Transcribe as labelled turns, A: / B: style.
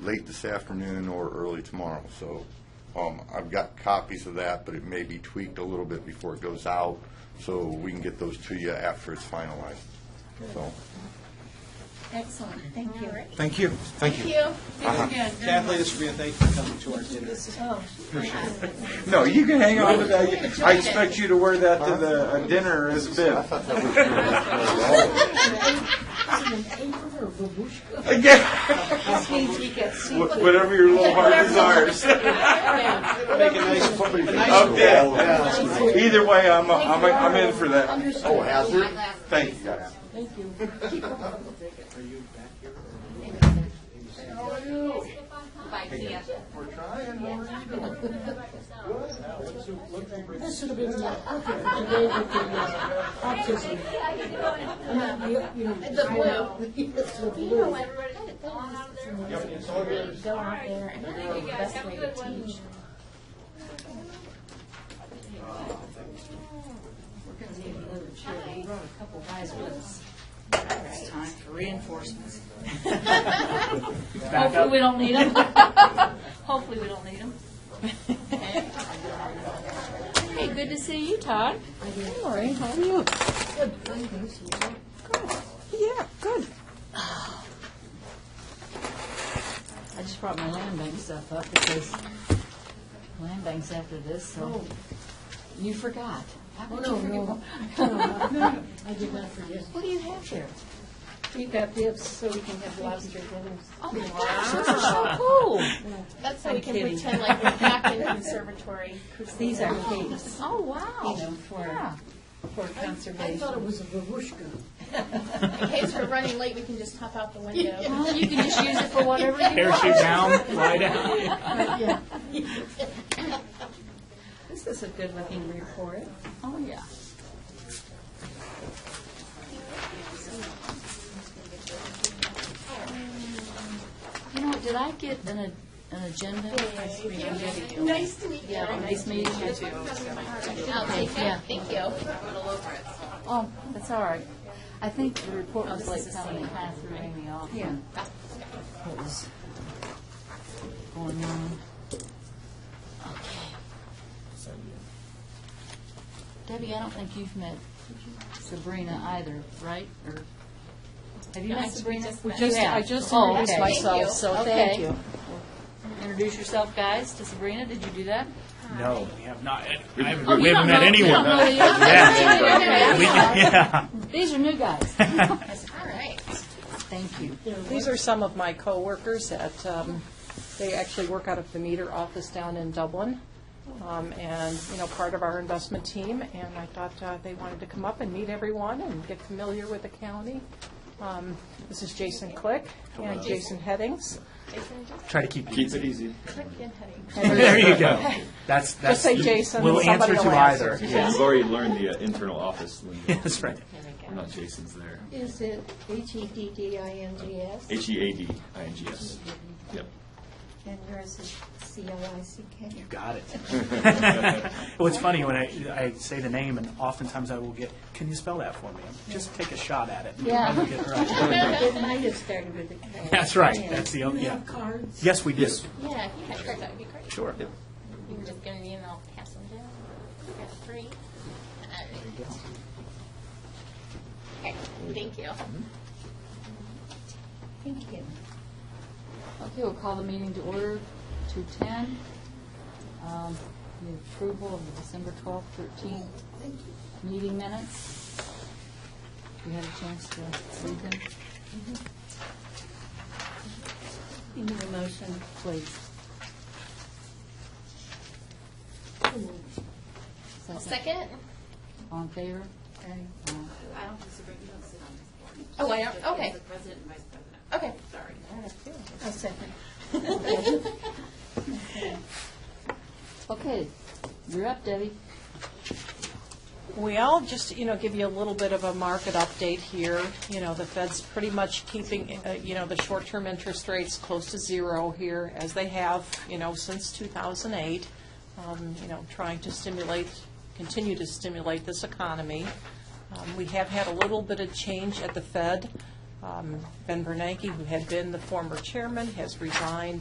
A: late this afternoon or early tomorrow. So um, I've got copies of that, but it may be tweaked a little bit before it goes out, so we can get those to you after it's finalized. So,
B: Excellent, thank you.
C: Thank you, thank
B: Thank
C: you.
B: you. Thank you again.
C: Kathleen, this will be a thank you for coming to our dinner.
B: Oh,
C: No, you can hang on to that. I
B: Enjoyed it.
C: expect you to wear that to the uh, dinner as a bib. Again,
B: this means we get
C: wh- whatever your little heart desires.
B: Make
C: a nice- I'm dead. Either way, I'm, I'm, I'm in for that.
A: oh, hazard?
C: Thank you, guys.
D: This should have been like, okay, today with the uh, autism. And then the, you know,
B: The blue.
D: It's the blue.
B: Go out there and find the best way to teach.
E: We're gonna need another chair. We brought a couple guys with us. It's time for reinforcements.
B: Hopefully, we don't need them. Hopefully, we don't need them. Hey, good to see you, Todd.
F: Lori, how are you? Yeah, good.
E: I just brought my land bank stuff up because land bank's after this, so.
D: Oh.
E: You forgot. How could you forget?
D: I did not forget.
E: What do you have here?
D: We got this so we can have lobster dinners.
E: Oh, my gosh, those are so cool.
B: That's so we can
E: kidding.
B: pretend like we're back in conservatory.
E: These are cakes,
B: Oh,
E: you
B: wow.
E: know, for, for
D: I
E: conservation.
D: thought it was a babushka.
B: In case we're running late, we can just hop out the window.
E: Well, you can just use it for whatever you want.
G: parachute down, fly down.
E: This is a good looking report.
B: Oh, yeah.
E: You know, did I get an, a- an agenda?
B: Nice to meet you.
E: Yeah, nice meeting you too.
B: I'll take
E: Yeah.
B: that, thank you.
E: Oh, that's all right. I think the report was like coming kind of threw me off. Yeah. What was going on? Okay. Debbie, I don't think you've met Sabrina either, right? Or, have you
B: No, I
E: met
B: think we
E: Sabrina?
B: just met.
E: You
F: Just, I
E: have?
F: just
E: Oh,
F: introduced
E: okay.
F: myself, so thank
E: Okay.
F: you.
E: Introduce yourself, guys, to Sabrina. Did you do that?
G: No, we have not. I haven't,
E: Oh, you
G: we
E: don't
G: haven't met
E: know- you
G: anyone.
E: don't know the other-
G: yeah.
E: Okay,
G: We
E: I'm
G: can-
E: sorry.
G: yeah.
E: These are new guys.
B: All right.
E: Thank you.
F: These are some of my coworkers that, um, they actually work out of the meter office down in Dublin, um, and, you know, part of our investment team, and I thought uh, they wanted to come up and meet everyone and get familiar with the county. Um, This is Jason Click and Jason Headings.
G: Try to keep.
C: Keep it easy.
G: There you go. That's that's.
F: say Jason,
G: We'll
F: somebody
G: answer to
F: will answer.
G: either. Yeah,
H: We've already learned the uh, internal office lingo.
G: that's right.
H: We're not Jason's there.
D: Is it H-E-D-D-I-N-G-S?
H: H E A D I N G S. Yep.
D: And yours is C-L-I-C-K?
G: You got it. well, it's funny when I, I say the name, and oftentimes I will get, "Can you spell that for me?" Just take a shot at it. Yeah. Get it right.
D: It might have started with a K.
G: That's right. That's the
D: Do
G: only.
D: you
G: Yeah.
D: have cards?
G: Yes, we do.
H: Yes.
B: Yeah, if you had cards, that would be great.
G: Sure.
B: You can just get an email, I'll pass them down. I got three. All right. Okay, thank you.
D: Thank you.
E: Okay, we'll call the meeting to order, 2:10. Um, The approval of the December 12th, 13th meeting minutes. You had a chance to read them, Mm-hmm.
D: You need a motion?
E: please.
B: I'll second.
E: All in favor? Aye.
B: Oh, I don't, okay. Okay. Sorry.
D: A second.
E: Okay, you're up, Debbie.
F: Well, just, you know, give you a little bit of a market update here. You know, the Fed's pretty much keeping, uh, you know, the short-term interest rates close to zero here, as they have, you know, since 2008, um, you know, trying to stimulate, continue to stimulate this economy. Um, We have had a little bit of change at the Fed. Um, Ben Bernanke, who had been the former chairman, has resigned